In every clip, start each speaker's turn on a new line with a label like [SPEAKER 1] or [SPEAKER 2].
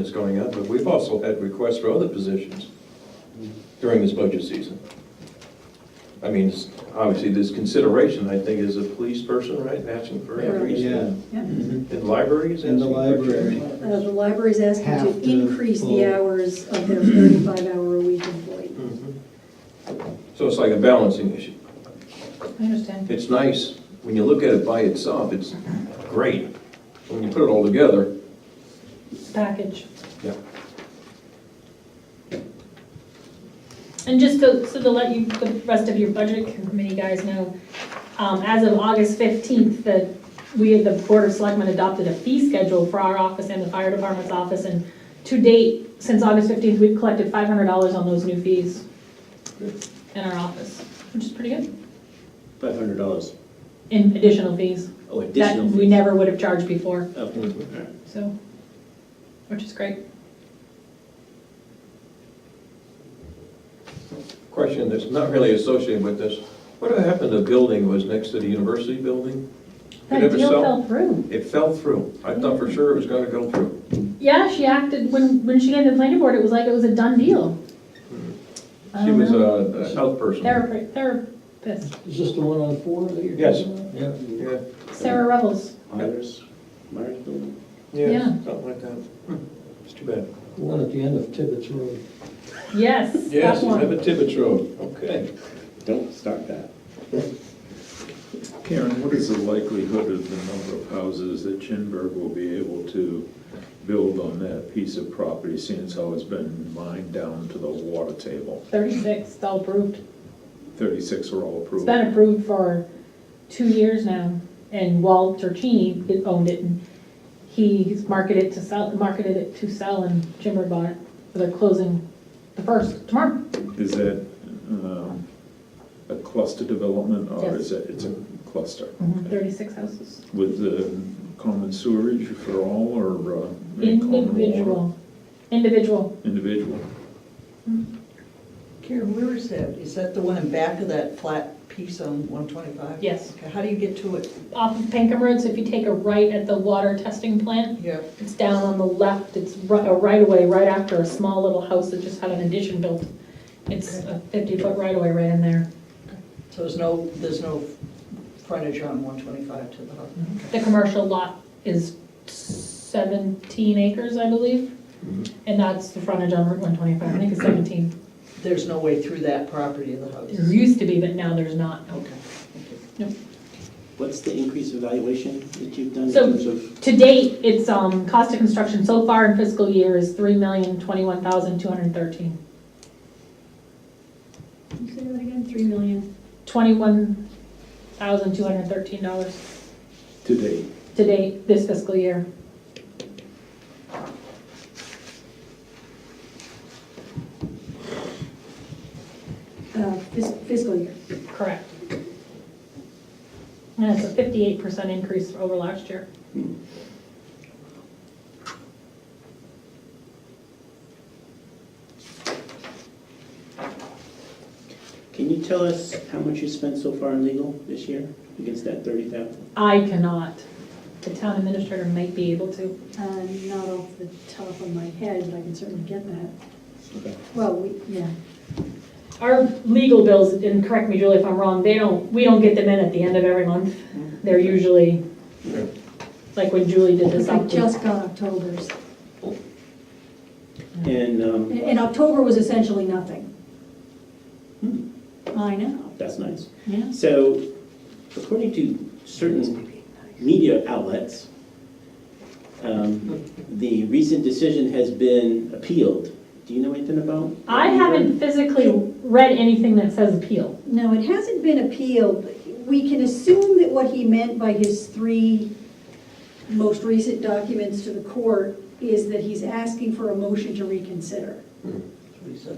[SPEAKER 1] is going up, but we've also had requests for other positions during this budget season. I mean, it's- obviously, this consideration, I think, is a police person, right, asking for
[SPEAKER 2] Yeah.
[SPEAKER 1] increase.
[SPEAKER 3] Yeah,
[SPEAKER 1] And libraries.
[SPEAKER 3] Mm-hmm. in the
[SPEAKER 1] asking for-
[SPEAKER 3] library.
[SPEAKER 2] Uh, The library's asking
[SPEAKER 3] Have
[SPEAKER 2] to
[SPEAKER 3] to
[SPEAKER 2] increase the
[SPEAKER 3] pull.
[SPEAKER 2] hours of their thirty-five hour a week employee.
[SPEAKER 1] Mhm. So it's like a balancing issue.
[SPEAKER 4] I understand.
[SPEAKER 1] It's nice, when you look at it by itself, it's great. When you put it all together,
[SPEAKER 4] Package.
[SPEAKER 1] Yeah.
[SPEAKER 5] And just to, so to let you, the rest of your budget committee guys know, um, as of August fifteenth, that we, the Board of Selectmen adopted a fee schedule for our office and the fire department's office, and to date, since August fifteenth, we've collected five hundred dollars on those new fees in our office, which is pretty good,
[SPEAKER 6] Five hundred dollars.
[SPEAKER 5] in additional fees
[SPEAKER 6] Oh,
[SPEAKER 5] that
[SPEAKER 6] additional.
[SPEAKER 5] we never would have charged before,
[SPEAKER 6] Oh,
[SPEAKER 5] so, which is great.
[SPEAKER 1] question that's not really associated with this, what happened to the building that was next to the university building? Did it
[SPEAKER 5] That
[SPEAKER 1] ever
[SPEAKER 5] deal
[SPEAKER 1] sell?
[SPEAKER 5] fell through.
[SPEAKER 1] It fell through. I thought for sure it was gonna go through.
[SPEAKER 5] Yeah, she acted, when, when she came to the planning board, it was like it was a done deal. I
[SPEAKER 1] She
[SPEAKER 5] don't
[SPEAKER 1] was
[SPEAKER 5] know.
[SPEAKER 1] a a health person.
[SPEAKER 5] Therapi- Therapist,
[SPEAKER 3] Is this the one on four that you're?
[SPEAKER 1] Yes.
[SPEAKER 3] talking about? Yeah.
[SPEAKER 1] Yeah,
[SPEAKER 5] Sarah Revels.
[SPEAKER 6] Myers, Myers building.
[SPEAKER 1] yeah,
[SPEAKER 5] Yeah.
[SPEAKER 1] something like that. Hmm, It's too bad.
[SPEAKER 3] The one at the end of Tibbetts Road.
[SPEAKER 1] Yes,
[SPEAKER 5] Yes, that
[SPEAKER 1] you have
[SPEAKER 5] one.
[SPEAKER 1] a Tibbetts Road, okay.
[SPEAKER 6] Don't start that.
[SPEAKER 7] Karen, what is the likelihood of the number of houses that Chinburg will be able to build on that piece of property, seeing as how it's been mined down to the water table?
[SPEAKER 5] Thirty-six, it's all approved.
[SPEAKER 7] Thirty-six are all
[SPEAKER 5] It's
[SPEAKER 7] approved.
[SPEAKER 5] been approved for two years now, and Walt Turchini owned it, and he's marketed it to sell, marketed it to sell, and Jimmer bought it. They're closing the first tomorrow.
[SPEAKER 7] Is that um, a cluster development, or
[SPEAKER 5] Yes.
[SPEAKER 7] is it, it's a cluster?
[SPEAKER 5] Thirty-six houses.
[SPEAKER 7] With the common sewerage for all, or? uh, any common water?
[SPEAKER 5] Individual, individual.
[SPEAKER 7] Individual.
[SPEAKER 8] Karen, where is that? Is that the one in back of that flat piece on one twenty-five?
[SPEAKER 5] Yes.
[SPEAKER 8] Okay, how do you get to it?
[SPEAKER 5] off of Pankham Road, so if you take a right at the water testing plant,
[SPEAKER 8] Yeah.
[SPEAKER 5] it's down on the left, it's ri- a right-of-way right after a small little house that just had an addition built. It's a fifty-foot right-of-way right in there.
[SPEAKER 8] So there's no, there's no frontage on one twenty-five to the house?
[SPEAKER 5] The commercial lot is seventeen acres, I believe,
[SPEAKER 1] Mhm.
[SPEAKER 5] and that's the frontage on Route one twenty-five, I think it's seventeen.
[SPEAKER 8] There's no way through that property of the house?
[SPEAKER 5] There used to be, but now there's not.
[SPEAKER 8] Okay.
[SPEAKER 6] What's the increase evaluation that you've done in
[SPEAKER 5] So-
[SPEAKER 6] terms of?
[SPEAKER 5] To date, it's, um, cost of construction so far in fiscal year is three million, twenty-one thousand, two hundred and thirteen.
[SPEAKER 2] Say that again, three million.
[SPEAKER 5] Twenty-one thousand, two hundred and thirteen dollars.
[SPEAKER 7] Today.
[SPEAKER 5] to date this fiscal year.
[SPEAKER 2] Uh, fis- Fiscal year.
[SPEAKER 5] Correct. And it's a fifty-eight percent increase over last year.
[SPEAKER 6] Can you tell us how much you spent so far in legal this year against that thirty thousand?
[SPEAKER 5] I cannot. The town administrator might be able to.
[SPEAKER 2] Uh, Not off the top of my head, but I can certainly get that.
[SPEAKER 6] Okay.
[SPEAKER 2] Well, we, yeah.
[SPEAKER 5] Our legal bills, and correct me Julie if I'm wrong, they don't, we don't get them in at the end of every month. They're usually,
[SPEAKER 1] Yeah.
[SPEAKER 5] like when Julie did this
[SPEAKER 2] I
[SPEAKER 5] up.
[SPEAKER 2] just got October's.
[SPEAKER 6] And um,
[SPEAKER 2] And- And October was essentially nothing. I know,
[SPEAKER 6] that's nice.
[SPEAKER 2] yeah.
[SPEAKER 6] So according to certain media outlets, um, the recent decision has been appealed. Do you know anything about?
[SPEAKER 5] I haven't physically read anything that says appeal.
[SPEAKER 2] No, it hasn't been appealed. We can assume that what he meant by his three most recent documents to the court is that he's asking for a motion to reconsider.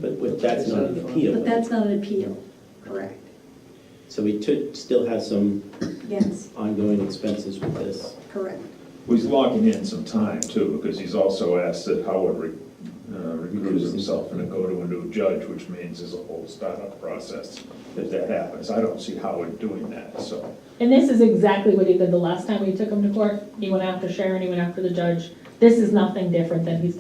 [SPEAKER 6] But what- that's not an appeal.
[SPEAKER 2] But that's not an appeal. Correct.
[SPEAKER 6] So we took, still have some
[SPEAKER 2] Yes,
[SPEAKER 6] ongoing expenses with this.
[SPEAKER 2] correct.
[SPEAKER 7] Well, He's logging in some time too, because he's also asked that Howard re- uh, recuse himself and to go to a new judge, which means there's a whole startup process if that happens. I don't see Howard doing that, so.
[SPEAKER 5] And this is exactly what he did the last time we took him to court. He went after Sharon, he went after the judge. This is nothing different than he's done